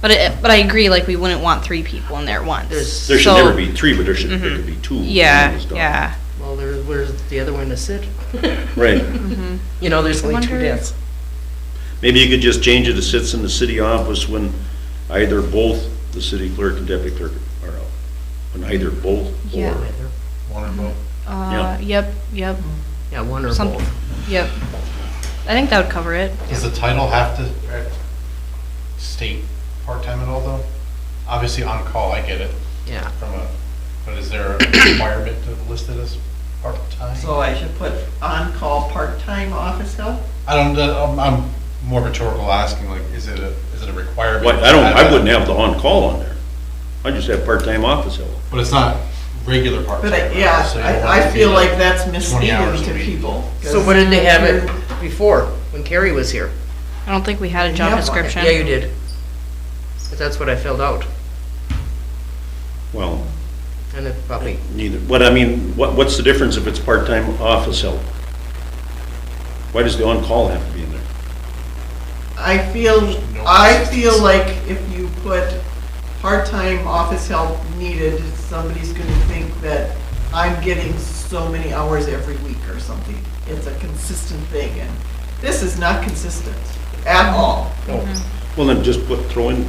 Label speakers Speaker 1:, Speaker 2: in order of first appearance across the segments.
Speaker 1: But it, but I agree, like, we wouldn't want three people in there at once.
Speaker 2: There should
Speaker 1: so- Mm-hmm.
Speaker 2: never be three, but there should, there could be two. when one
Speaker 1: Yeah,
Speaker 2: is gone.
Speaker 1: yeah.
Speaker 3: Well, there, where's the other one to sit?
Speaker 2: Right.
Speaker 3: You know, there's only two
Speaker 1: Wonder-
Speaker 3: desks.
Speaker 2: Maybe you could just change it to sits in the city office when either both the city clerk and deputy clerk are out. When either both
Speaker 1: Yeah.
Speaker 2: or.
Speaker 1: Uh, yep, yep,
Speaker 3: Yeah, one or
Speaker 1: Some-
Speaker 3: both.
Speaker 1: yep. I think that would cover it.
Speaker 4: Does the title have to uh, state part-time at all, though? Obviously, on-call, I get it,
Speaker 3: Yeah,
Speaker 4: from a, but is there a requirement to list it as part-time?
Speaker 5: So I should put on-call part-time office help?
Speaker 4: I don't, uh, I'm- I'm more rhetorical asking, like, is it a, is it a requirement?
Speaker 2: Why- I don't, I wouldn't have the on-call on there. I just have part-time office help.
Speaker 4: But it's not regular
Speaker 5: But
Speaker 4: part-time.
Speaker 5: I-
Speaker 4: right?
Speaker 5: yeah,
Speaker 4: So you don't
Speaker 5: I,
Speaker 4: want
Speaker 5: I
Speaker 4: to
Speaker 5: feel
Speaker 4: be
Speaker 5: like that's
Speaker 4: 20 hours
Speaker 5: misleading
Speaker 4: a
Speaker 5: to
Speaker 4: week.
Speaker 5: people. 'cause
Speaker 3: so what did they have it
Speaker 5: you're-
Speaker 3: before, when Carrie was here?
Speaker 1: I don't think we had a job
Speaker 5: Yeah.
Speaker 1: description.
Speaker 3: Yeah, you did. But that's what I filled out,
Speaker 2: Well,
Speaker 3: and it probably,
Speaker 2: neither, what I mean, what, what's the difference if it's part-time office help? Why does the on-call have to be in there?
Speaker 5: I feel, I feel like if you put part-time office help needed, somebody's gonna think that I'm getting so many hours every week or something. It's a consistent thing, and this is not consistent at all.
Speaker 3: no,
Speaker 2: Well, then just put, throw in,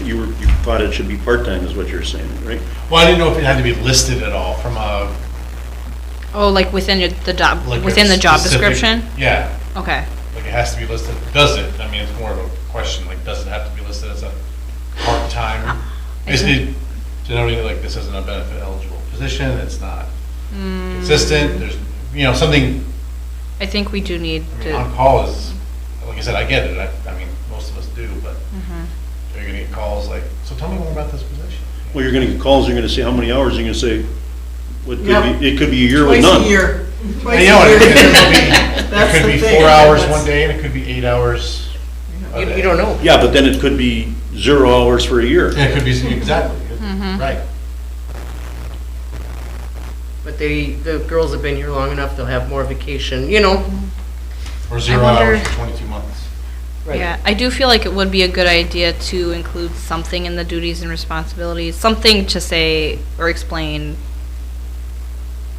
Speaker 2: you were, you thought it should be part-time is what you're saying, right?
Speaker 4: Well, I didn't know if it had to be listed at all from a,
Speaker 1: Oh, like within your- the job,
Speaker 4: like. a
Speaker 1: within the job
Speaker 4: specific-
Speaker 1: description?
Speaker 4: Yeah,
Speaker 1: Okay.
Speaker 4: like it has to be listed, does it? I mean, it's more of a question, like, does it have to be listed as a part-time? Basically, generally, like, this isn't a benefit eligible position, it's not consistent, there's, you know, something,
Speaker 1: I think we do need
Speaker 4: I mean,
Speaker 1: to,
Speaker 4: on-call is, like I said, I get it, I, I mean, most of us do, but you're gonna get calls like, so tell me more about this position.
Speaker 2: Well, you're gonna get calls, you're gonna say how many hours, you're gonna say, what could
Speaker 5: Yep.
Speaker 2: be, it could be a year with
Speaker 5: Twice
Speaker 2: none.
Speaker 5: a year, twice
Speaker 4: And
Speaker 5: a
Speaker 4: you know, it could
Speaker 5: year.
Speaker 4: be- it
Speaker 5: That's
Speaker 4: could
Speaker 5: the
Speaker 4: be
Speaker 5: thing,
Speaker 4: four hours
Speaker 5: that's-
Speaker 4: one day, and it could be eight hours. a
Speaker 3: you,
Speaker 4: day.
Speaker 3: you don't know.
Speaker 2: Yeah, but then it could be zero hours for a year.
Speaker 4: Yeah, it could be, exactly, right.
Speaker 3: But they, the girls have been here long enough, they'll have more vacation, you know?
Speaker 4: Or zero
Speaker 1: wonder-
Speaker 4: hours for twenty-two months.
Speaker 3: Right.
Speaker 1: yeah, I do feel like it would be a good idea to include something in the duties and responsibilities, something to say or explain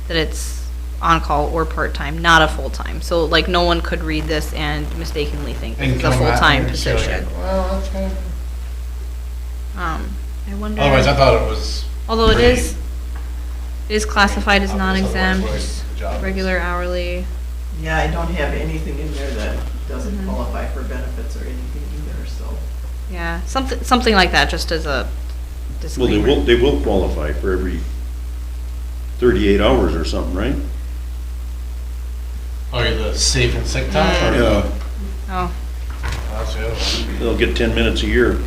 Speaker 1: that it's on-call or part-time, not a full-time. So like, no one could read this and mistakenly think
Speaker 4: And
Speaker 1: this is a
Speaker 4: come back
Speaker 1: full-time
Speaker 4: and say, like,
Speaker 1: position.
Speaker 4: Well, that's kind of.
Speaker 1: Um, I wonder.
Speaker 4: Otherwise, I thought it was.
Speaker 1: Although it
Speaker 4: pretty-
Speaker 1: is, it is classified as
Speaker 4: obvious otherwise
Speaker 1: non-exempt,
Speaker 4: what the job is.
Speaker 1: regular hourly.
Speaker 5: Yeah, I don't have anything in there that doesn't qualify for benefits or anything either, so.
Speaker 1: Yeah, something, something like that, just as a
Speaker 2: Well, they
Speaker 1: disclaimer.
Speaker 2: will, they will qualify for every thirty-eight hours or something, right?
Speaker 4: Oh, you're the safe and sick
Speaker 3: Mm.
Speaker 4: time or?
Speaker 2: Yeah,
Speaker 1: Oh,
Speaker 4: That's the other one.
Speaker 2: they'll get ten minutes a year.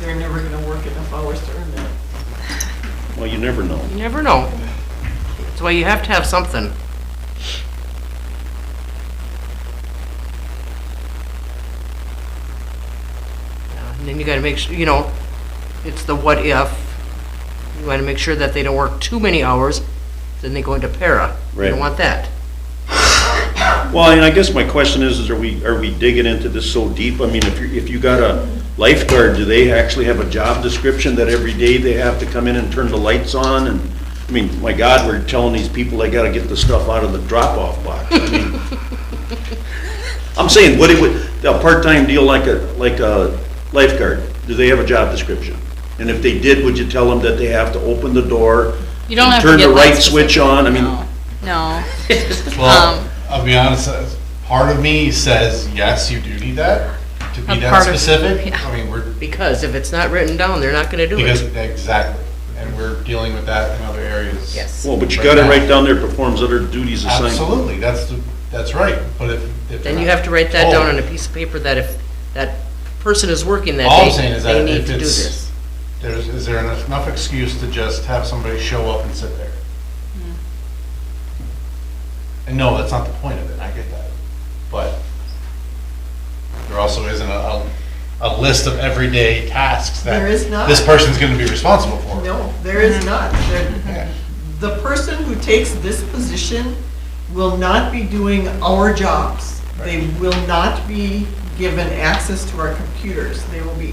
Speaker 5: They're never gonna work enough hours to earn that.
Speaker 2: Well, you never know.
Speaker 3: You never know. That's why you have to have something. Yeah, Uh, And then you gotta make sure, you know, it's the what if. You wanna make sure that they don't work too many hours, then they go into para. You
Speaker 2: Right.
Speaker 3: don't want that.
Speaker 2: Well, and I guess my question is, is are we, are we digging into this so deep? I mean, if you, if you got a lifeguard, do they actually have a job description that every day they have to come in and turn the lights on? And, I mean, my God, we're telling these people they gotta get the stuff out of the drop-off box. I mean, I'm saying, what it would, a part-time deal like a, like a lifeguard, do they have a job description? And if they did, would you tell them that they have to open the door?
Speaker 1: You don't
Speaker 2: and
Speaker 1: have to get
Speaker 2: Turn the
Speaker 1: that
Speaker 2: right switch on? I mean,
Speaker 1: no, no. Um,
Speaker 4: Well, I'll be honest, uh, part of me says, yes, you do need that, to
Speaker 1: A
Speaker 4: be that
Speaker 1: part of-
Speaker 4: specific.
Speaker 1: yeah.
Speaker 4: I mean, we're,
Speaker 3: Because if it's not written down, they're not gonna do
Speaker 4: because,
Speaker 3: it.
Speaker 4: exactly, and we're dealing with that in other areas.
Speaker 3: Yes.
Speaker 2: well, but you gotta write down there performs other duties assigned.
Speaker 4: Absolutely, that's, the- that's right, but if. if
Speaker 3: Then
Speaker 4: they're
Speaker 3: you
Speaker 4: not
Speaker 3: have to write that down
Speaker 4: told-
Speaker 3: on a piece of paper that if that person is working that
Speaker 4: All I'm
Speaker 3: day,
Speaker 4: saying is that
Speaker 3: they need
Speaker 4: if
Speaker 3: to do
Speaker 4: it's-
Speaker 3: this.
Speaker 4: There's, is there enough enough excuse to just have somebody show up and sit there? And no, that's not the point of it, I get that, but there also isn't a, a, a list of everyday tasks that
Speaker 5: There is not.
Speaker 4: this person's gonna be responsible for.
Speaker 5: No, there is not. There-
Speaker 4: Yeah.
Speaker 5: The person who takes this position will not be doing our jobs. They will not be given access to our computers. They will be